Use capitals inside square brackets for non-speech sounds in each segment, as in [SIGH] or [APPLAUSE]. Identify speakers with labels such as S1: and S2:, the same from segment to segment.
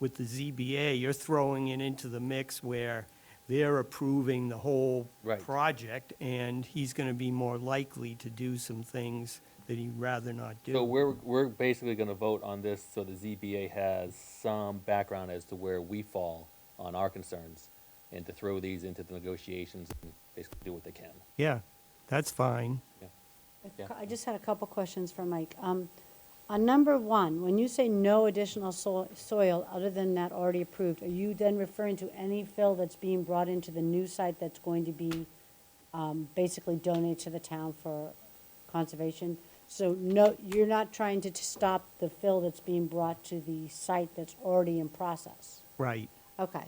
S1: with the ZBA, you're throwing it into the mix where they're approving the whole
S2: Right.
S1: project, and he's gonna be more likely to do some things that he'd rather not do.
S2: So we're, we're basically gonna vote on this, so the ZBA has some background as to where we fall on our concerns, and to throw these into the negotiations and basically do what they can.
S1: Yeah, that's fine.
S2: Yeah.
S3: I just had a couple questions for Mike. Um, On number one, when you say no additional so- soil other than that already approved, are you then referring to any fill that's being brought into the new site that's going to be um, basically donated to the town for conservation? So no, you're not trying to t- stop the fill that's being brought to the site that's already in process?
S1: Right.
S3: Okay.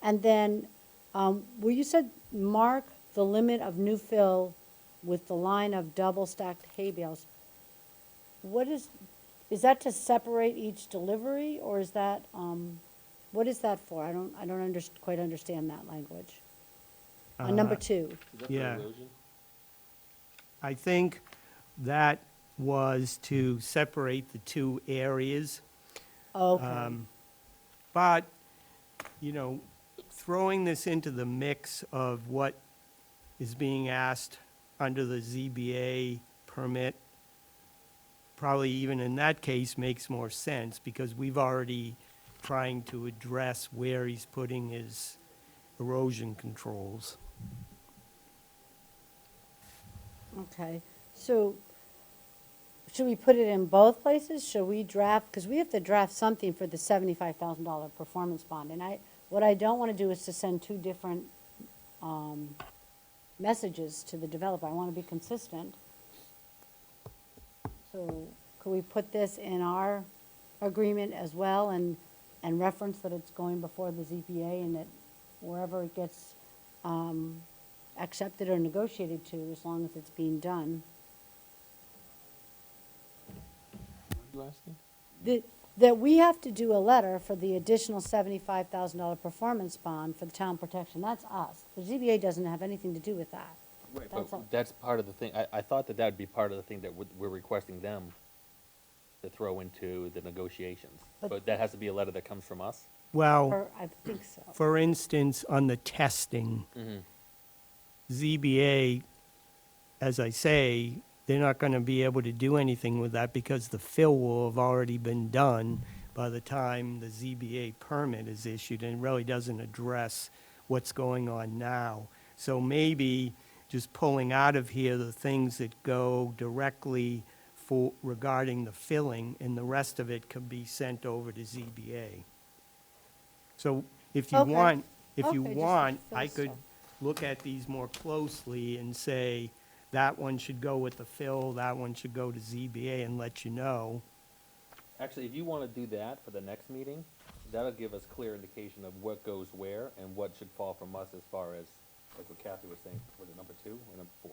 S3: And then, um, where you said mark the limit of new fill with the line of double stacked hay bales, what is, is that to separate each delivery or is that, um, what is that for? I don't, I don't under, quite understand that language. On number
S1: Uh,
S3: two,
S1: Yeah. I think that was to separate the two areas.
S3: okay,
S1: But, you know, throwing this into the mix of what is being asked under the ZBA permit, probably even in that case makes more sense because we've already trying to address where he's putting his erosion controls.
S3: okay. So, should we put it in both places? Should we draft, because we have to draft something for the seventy-five thousand dollar performance bond, and I, what I don't want to do is to send two different, um, messages to the developer, I want to be consistent. So, could we put this in our agreement as well and, and reference that it's going before the ZBA and that wherever it gets, um, accepted or negotiated to, as long as it's being done?
S2: You asking?
S3: that, that we have to do a letter for the additional seventy-five thousand dollar performance bond for the town protection, that's us. The ZBA doesn't have anything to do with that. That's all.
S2: But that's part of the thing, I, I thought that that'd be part of the thing that we're, we're requesting them to throw into the negotiations,
S3: But-
S2: but that has to be a letter that comes from us?
S1: Well.
S3: Or, I think so.
S1: For instance, on the testing, ZBA, as I say, they're not going to be able to do anything with that because the fill will have already been done by the time the ZBA permit is issued, and it really doesn't address what's going on now. So maybe just pulling out of here the things that go directly for, regarding the filling, and the rest of it could be sent over to ZBA. So if you
S3: Okay.
S1: want, if you
S3: Okay, just to
S1: want, I
S3: fill
S1: could
S3: stuff.
S1: look at these more closely and say, that one should go with the fill, that one should go to ZBA and let you know.
S2: Actually, if you wanna do that for the next meeting, that'll give us clear indication of what goes where and what should fall from us as far as, like what Kathy was saying, was it number two or number four?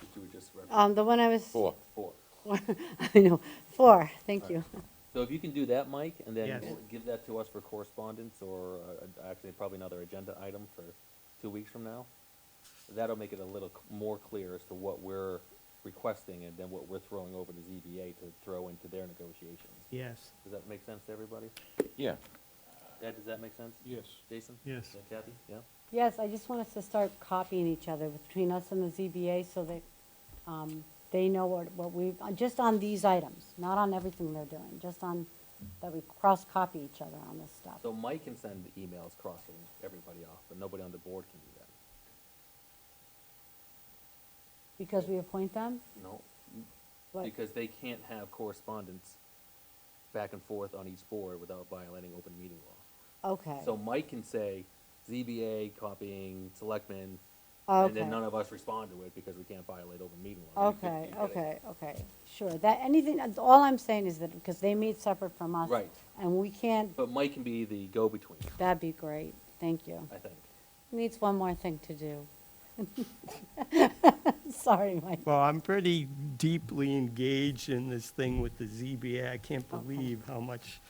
S2: Did you just reference
S3: Um, the one I was.
S2: Oh,
S4: Four.
S2: four?
S3: [LAUGHS] I know, four, thank you.
S2: So if you can do that, Mike, and then
S1: Yes.
S2: we'll give that to us for correspondence or uh, actually probably another agenda item for two weeks from now, that'll make it a little c- more clear as to what we're requesting and then what we're throwing over to ZBA to throw into their negotiations.
S1: Yes.
S2: Does that make sense to everybody?
S4: Yeah,
S2: Ed, does that make sense? Yes. Jason?
S1: Yes.
S2: And Kathy? Yeah?
S3: Yes, I just want us to start copying each other between us and the ZBA so that, um, they know what, what we, uh, just on these items, not on everything they're doing, just on, that we cross-copy each other on this stuff.
S2: So Mike can send the emails crossing everybody off, but nobody on the board can do that.
S3: Because we appoint them,
S2: No.
S3: like,
S2: Because they can't have correspondence back and forth on each board without violating open meeting law.
S3: okay,
S2: So Mike can say ZBA copying selectmen, and
S3: okay.
S2: then none of us respond to it because we can't violate open meeting law. You could-
S3: Okay,
S2: you could-
S3: okay, okay, sure, that, anything, all I'm saying is that, because they meet separate from us.
S2: Right.
S3: And we can't,
S2: But Mike can be the go-between,
S3: that'd be great, thank you.
S2: I think.
S3: Needs one more thing to do. [LAUGHS] Sorry, Mike.
S1: Well, I'm pretty deeply engaged in this thing with the ZBA. I can't
S3: Okay.
S1: believe how much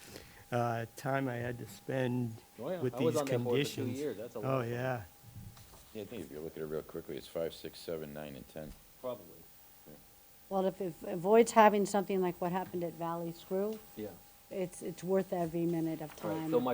S1: uh, time I had to spend
S2: Oh, yeah.
S1: with
S2: I was
S1: these
S2: on that board for two
S1: conditions.
S2: years. That's a lot
S1: Oh,
S2: of fun.
S1: yeah.
S4: yeah, I think if you look at it real quickly, it's five, six, seven, nine, and ten.
S2: Probably,
S3: Well, if it avoids having something like what happened at Valley Screw,
S2: yeah.
S3: it's, it's worth every minute of
S2: Right,
S3: time.
S2: so my